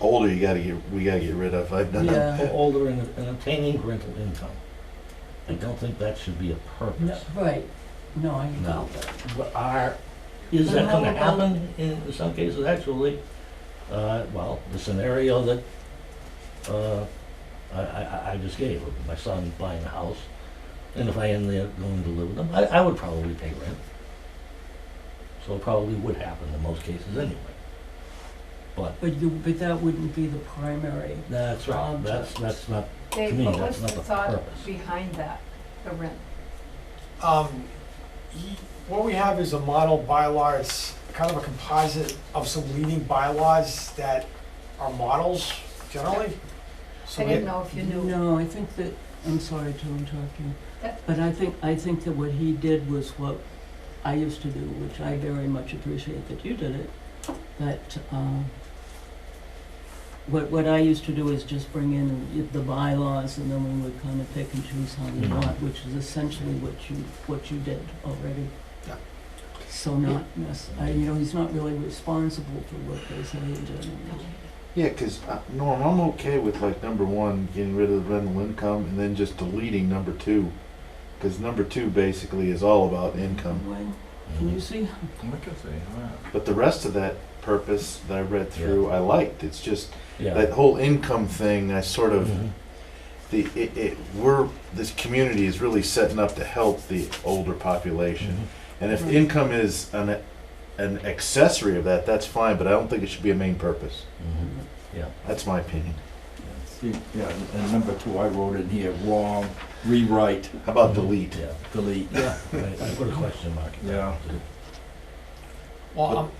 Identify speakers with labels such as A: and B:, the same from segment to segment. A: older, you gotta get, we gotta get rid of. I've done that.
B: or older and, and obtaining rental income. I don't think that should be a
C: No,
B: purpose.
C: right, no, I agree
B: No.
C: with that.
B: But are, is
C: But
B: that
C: how
B: gonna
C: about-
B: happen in some cases, actually? Uh, well, the scenario that, uh, I, I, I- I just gave, of my son buying a house, and if I end up going to live with him, I, I would probably pay rent. So it probably would happen in most cases anyway.
C: But you, but that wouldn't be the primary.
B: That's right, that's, that's not, to
D: Dave,
B: me,
D: what
B: that's
D: was the
B: not the
D: thought
B: purpose.
D: behind that, the rent?
E: Um, y- What we have is a model bylaw, it's kind of a composite of some leading bylaws that are models generally. So
D: I
E: we-
D: didn't know if you knew.
C: No, I think that, I'm sorry to interrupt you,
D: That-
C: but I think, I think that what he did was what I used to do, which I very much appreciate that you did it, that, uh, what, what I used to do is just bring in the bylaws and then we would kind of pick and choose how we
B: Mhm.
C: want, which is essentially what you, what you did already.
E: Yeah.
C: So not, nec- I- you know, he's not really responsible for what they say in general.
A: Yeah, cause, uh, Norm, I'm okay with like number one, getting rid of the rental income and then just deleting number two. Cause number two basically is all about income.
C: Why- Can you see?
F: Look at that.
A: But the rest of that purpose that I read through, I liked. It's just
B: Yeah.
A: that whole income thing, I sort of,
B: Mhm.
A: the, it, it, we're, this community is really setting up to help the older population.
B: Mhm.
A: And if
C: Right.
A: income is an, an accessory of that, that's fine, but I don't think it should be a main purpose.
B: Mhm. Yeah.
A: That's my opinion.
F: See, Yeah, and number two, I wrote in here, wrong, rewrite,
A: How about delete?
B: Yeah,
F: delete.
B: yeah, right. I put a question mark. in there, too.
E: Well, um,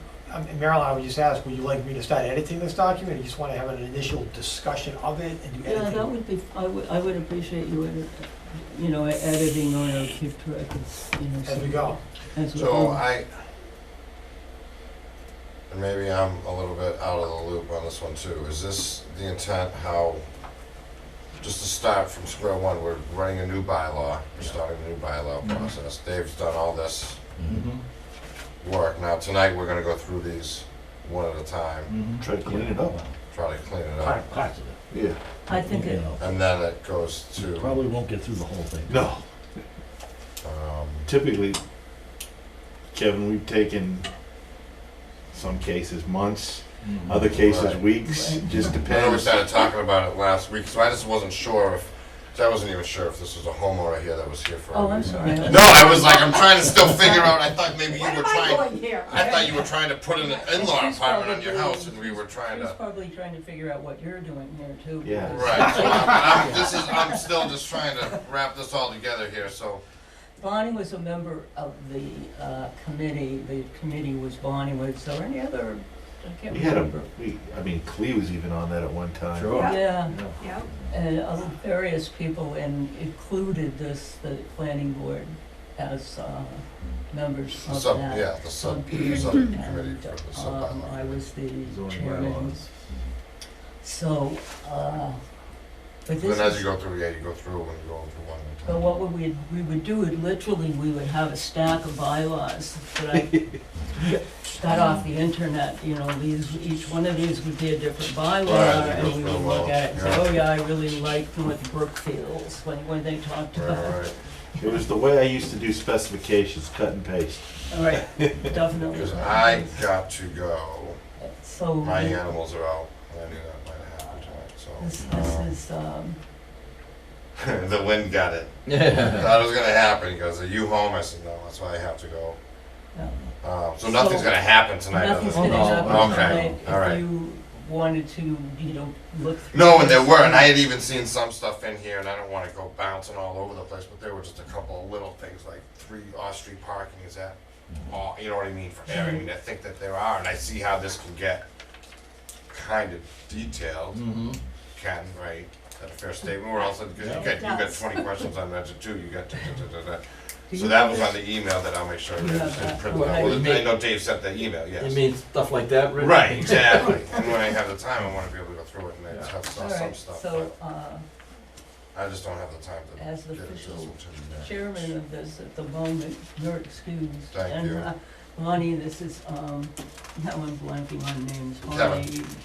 E: um, Marilyn, I would just ask, would you like me to start editing this document? Or you just want to have an initial discussion of it and do
C: Yeah, that
E: editing?
C: would be, I would, I would appreciate you edit, you know, editing on or keep track of, you know.
E: As we go.
C: as we
G: So uh,
C: go.
G: I, and maybe I'm a little bit out of the loop on this one too. Is this the intent how, just to start from square one, we're running a new bylaw, we're starting a new bylaw
F: Mhm.
G: process. Dave's done all this
B: Mhm.
F: Mhm,
G: work. Now tonight, we're gonna go through these one at a time,
F: mhm.
A: Try to clean it up.
G: try to clean it
B: Part-
G: up.
B: Parts of it.
A: Yeah.
C: I think
B: You
C: it,
B: know,
G: And then it goes
B: you
G: to,
B: Probably won't get through the whole thing.
A: No,
G: um,
A: typically, Kevin, we've taken some cases months,
F: Mhm.
A: other cases
G: Right.
A: weeks,
C: Right.
A: just
G: I know we
A: depends.
G: started talking about it last week, so I just wasn't sure if, I wasn't even sure if this was a homeowner here that was here for a
C: oh, I'm
G: reason.
C: sorry.
G: No, I was like, I'm trying to still figure out. I thought maybe you
D: Where
G: were
D: am I
G: trying.
D: going here?
G: I thought you were trying to put an in-law apartment on your house, and we were trying
C: She's
G: to.
C: probably trying to figure out what you're doing here too.
A: Yeah.
C: because
G: Right. So I'm, I'm, this is. I'm still just trying to wrap this all together here. So
C: Bonnie was a member of the, uh, committee, the committee was Bonnie, was there any other, I can't
A: We had
C: remember.
A: a, we, I mean, Clee was even on that at one time.
F: Sure.
C: Yeah,
F: Yeah.
D: Yeah,
C: and other various people and included this, the planning board as, uh, members
G: the
C: of
G: sub.
C: that.
G: Yeah, the sub
C: subcommittee,
G: subcommittee for the
C: um,
G: sub
C: I
G: bylaw.
C: was the
A: Zoning
C: chairman.
A: bylaws.
C: So, uh, but this
G: Then as you
C: is,
G: go through, yeah, you go through and you go through one at a
C: but
G: time.
C: what would we, we would do, it literally, we would have a stack of bylaws that I got off the internet, you know, these, each one of these would be a different bylaw,
G: Right,
C: and we
G: you go
C: would
G: through
C: look
G: all,
C: at it and say,
G: yeah.
C: oh yeah, I really liked what Brook feels when, when they talked
G: Right,
C: about.
G: right.
A: It was the way I used to do specifications, cut and paste.
C: All right, definitely.
G: Because I got to go.
C: So.
G: My animals are out. I knew that might have happened
C: This,
G: tonight. So
C: this
G: um,
C: is, um,
G: the wind got it. I
F: Yeah.
G: thought it was gonna happen. He goes, "Are you home?" I said, "No, that's why I have to go."
C: yeah.
G: Um, so
C: So-
G: nothing's gonna happen tonight.
C: Nothing's
G: other
C: gonna
F: Oh,
G: than-
F: no.
C: happen
G: Okay,
C: tonight.
G: all
C: If
G: right.
C: you wanted to, you know, look through.
G: No, and there
C: this,
G: were, and I had even seen some stuff in here, and I don't want to go bouncing all over the place, but there were just a couple of little things like three off-street parking is that, all, you know what I mean? For air. I mean, I think that there are, and I see how this can get kind of detailed.
F: Mhm.
G: Ken, right? Is that a fair statement? We're also because you got you got 20 questions on that too. You got da, da, da, da, da.
C: Do
G: so
C: you
G: that
C: have
G: was
C: this?
G: on the email that I'll make sure
C: You
G: we
C: have
G: understand.
C: that.
G: print
F: Well,
G: that.
F: I
G: Well,
F: would
G: I
F: make-
G: know Dave sent that email. Yes.
F: You mean stuff like that, Rick?
G: Right, exactly. and when I have the time, I want to be able to go through it and I just have
C: All
G: some, some
C: right,
G: stuff.
C: so, uh,
G: but I just don't have the time to
C: as the
G: get it.
C: official
G: just to-
C: chairman of this at the moment, you're excused.
G: Thank
C: And,
G: you.
C: uh, Lonnie, this is, um, now I'm blanking on names,
G: Kevin.
C: Lonnie,